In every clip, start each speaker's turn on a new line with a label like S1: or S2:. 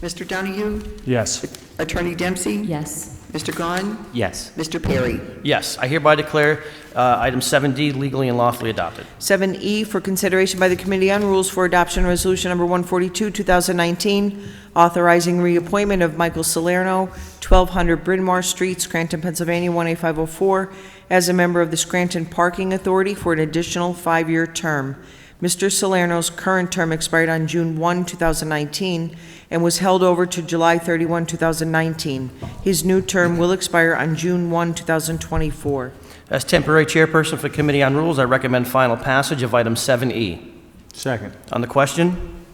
S1: Mr. Donahue?
S2: Yes.
S1: Attorney Dempsey?
S3: Yes.
S1: Mr. Gahn?
S4: Yes.
S1: Mr. Perry?
S4: Yes, I hereby declare uh, item 7D legally and lawfully adopted.
S5: 7E E, for consideration by the Committee on Rules for Adoption Resolution Number 142, 2019, authorizing reappointment of Michael Salerno, 1200 Bryn Mawr Street, Scranton, Pennsylvania, 18504, as a member of the Scranton Parking Authority for an additional five-year term. Mr. Salerno's current term expired on June 1, 2019, and was held over to July 31, 2019. His new term will expire on June 1, 2024.
S4: As temporary chairperson for Committee on Rules, I recommend final passage of item 7E.
S2: Second.
S4: On the question,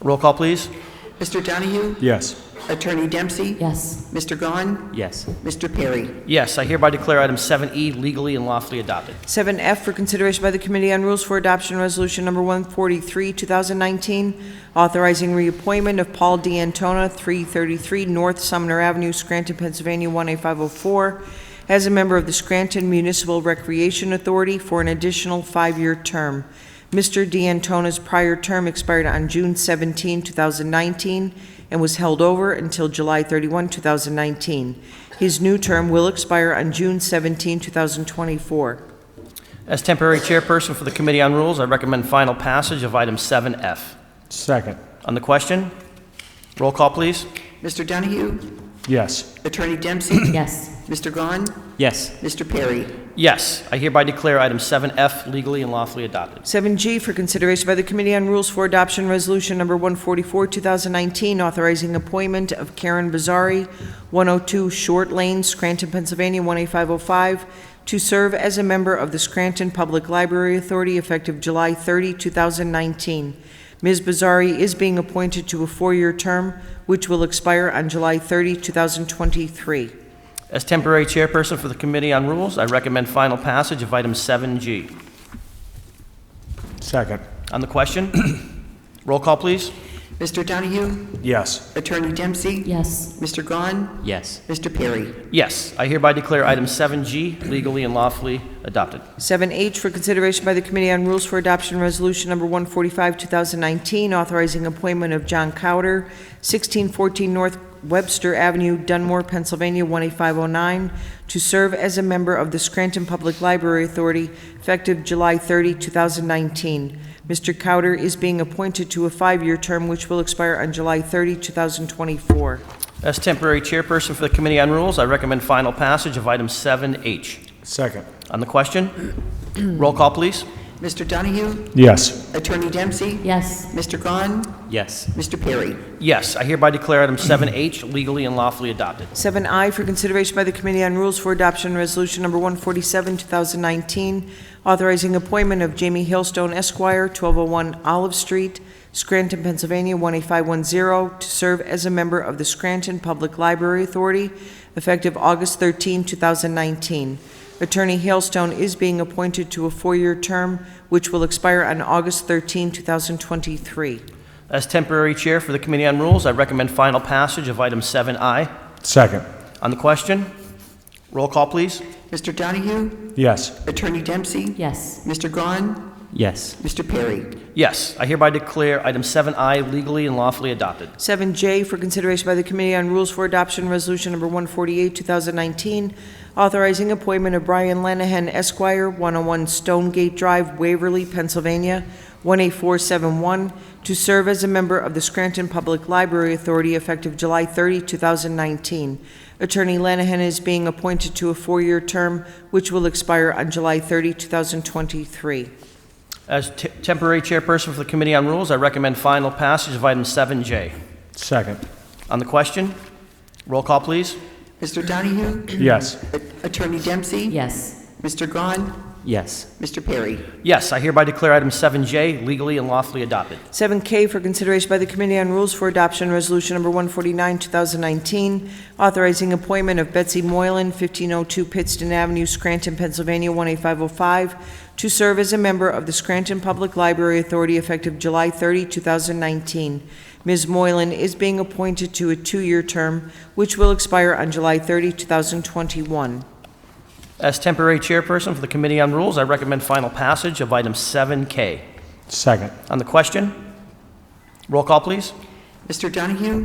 S4: roll call, please.
S1: Mr. Donahue?
S2: Yes.
S1: Attorney Dempsey?
S3: Yes.
S1: Mr. Gahn?
S4: Yes.
S1: Mr. Perry?
S4: Yes, I hereby declare item 7E legally and lawfully adopted.
S5: 7F for consideration by the Committee on Rules for Adoption Resolution Number 143, 2019, authorizing reappointment of Paul D'Antona, 333 North Sumner Avenue, Scranton, Pennsylvania, 18504, as a member of the Scranton Municipal Recreation Authority for an additional five-year term. Mr. D'Antona's prior term expired on June 17, 2019, and was held over until July 31, 2019. His new term will expire on June 17, 2024.
S4: As temporary chairperson for the Committee on Rules, I recommend final passage of item 7F.
S2: Second.
S4: On the question, roll call, please.
S1: Mr. Donahue?
S2: Yes.
S1: Attorney Dempsey?
S3: Yes.
S1: Mr. Gahn?
S4: Yes.
S1: Mr. Perry?
S4: Yes, I hereby declare item 7F legally and lawfully adopted.
S5: 7G for consideration by the Committee on Rules for Adoption Resolution Number 144, 2019, authorizing appointment of Karen Bazari, 102 Short Lane, Scranton, Pennsylvania, 18505, to serve as a member of the Scranton Public Library Authority effective July 30, 2019. Ms. Bazari is being appointed to a four-year term, which will expire on July 30, 2023.
S4: As temporary chairperson for the Committee on Rules, I recommend final passage of item 7G.
S2: Second.
S4: On the question, roll call, please.
S1: Mr. Donahue?
S2: Yes.
S1: Attorney Dempsey?
S3: Yes.
S1: Mr. Gahn?
S4: Yes.
S1: Mr. Perry?
S4: Yes, I hereby declare item 7G legally and lawfully adopted.
S5: 7H for consideration by the Committee on Rules for Adoption Resolution Number 145, 2019, authorizing appointment of John Cowder, 1614 North Webster Avenue, Dunmore, Pennsylvania, 18509, to serve as a member of the Scranton Public Library Authority effective July 30, 2019. Mr. Cowder is being appointed to a five-year term which will expire on July 30, 2024.
S4: As temporary chairperson for the Committee on Rules, I recommend final passage of item 7H.
S2: Second.
S4: On the question, roll call, please.
S1: Mr. Donahue?
S2: Yes.
S1: Attorney Dempsey?
S3: Yes.
S1: Mr. Gahn?
S4: Yes.
S1: Mr. Perry?
S4: Yes, I hereby declare item 7H legally and lawfully adopted.
S5: 7I for consideration by the Committee on Rules for Adoption Resolution Number 147, 2019, authorizing appointment of Jamie Hailstone Esquire, 1201 Olive Street, Scranton, Pennsylvania, 18510, to serve as a member of the Scranton Public Library Authority effective August 13, 2019. Attorney Hailstone is being appointed to a four-year term, which will expire on August 13, 2023.
S4: As temporary chair for the Committee on Rules, I recommend final passage of item 7I.
S2: Second.
S4: On the question, roll call, please.
S1: Mr. Donahue?
S2: Yes.
S1: Attorney Dempsey?
S3: Yes.
S1: Mr. Gahn?
S4: Yes.
S1: Mr. Perry?
S4: Yes, I hereby declare item 7I legally and lawfully adopted.
S5: 7J for consideration by the Committee on Rules for Adoption Resolution Number 148, 2019, authorizing appointment of Brian Lanahan Esquire, 101 Stonegate Drive, Waverly, Pennsylvania, 18471, to serve as a member of the Scranton Public Library Authority effective July 30, 2019. Attorney Lanahan is being appointed to a four-year term, which will expire on July 30, 2023.
S4: As te- temporary chairperson for the Committee on Rules, I recommend final passage of item 7J.
S2: Second.
S4: On the question, roll call, please.
S1: Mr. Donahue?
S2: Yes.
S1: A- Attorney Dempsey?
S3: Yes.
S1: Mr. Gahn?
S4: Yes.
S1: Mr. Perry?
S4: Yes, I hereby declare item 7J legally and lawfully adopted.
S5: 7K for consideration by the Committee on Rules for Adoption, Resolution Number 149, 2019, authorizing appointment of Betsy Moylan, 1502 Pittston Avenue, Scranton, Pennsylvania, 18505, to serve as a member of the Scranton Public Library Authority effective July 30, 2019. Ms. Moylan is being appointed to a two-year term, which will expire on July 30, 2021.
S4: As temporary chairperson for the Committee on Rules, I recommend final passage of item 7K.
S2: Second.
S4: On the question, roll call, please.
S1: Mr. Donahue?